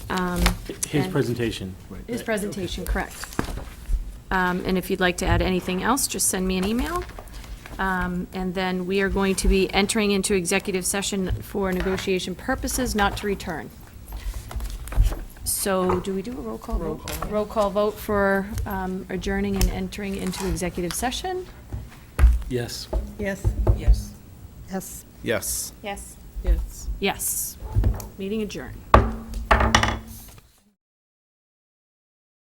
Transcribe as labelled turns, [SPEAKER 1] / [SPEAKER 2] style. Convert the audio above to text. [SPEAKER 1] um,
[SPEAKER 2] His
[SPEAKER 1] and-
[SPEAKER 2] presentation.
[SPEAKER 1] His presentation, correct. Um, And if you'd like to add anything else, just send me an email. Um, And then we are going to be entering into executive session for negotiation purposes, not to return. So do we do a roll call vote? Roll call vote for um, adjourning and entering into executive session?
[SPEAKER 2] Yes.
[SPEAKER 3] Yes.
[SPEAKER 4] Yes.
[SPEAKER 3] Yes.
[SPEAKER 5] Yes.
[SPEAKER 1] Yes.
[SPEAKER 4] Yes.
[SPEAKER 1] Yes. Meeting adjourned.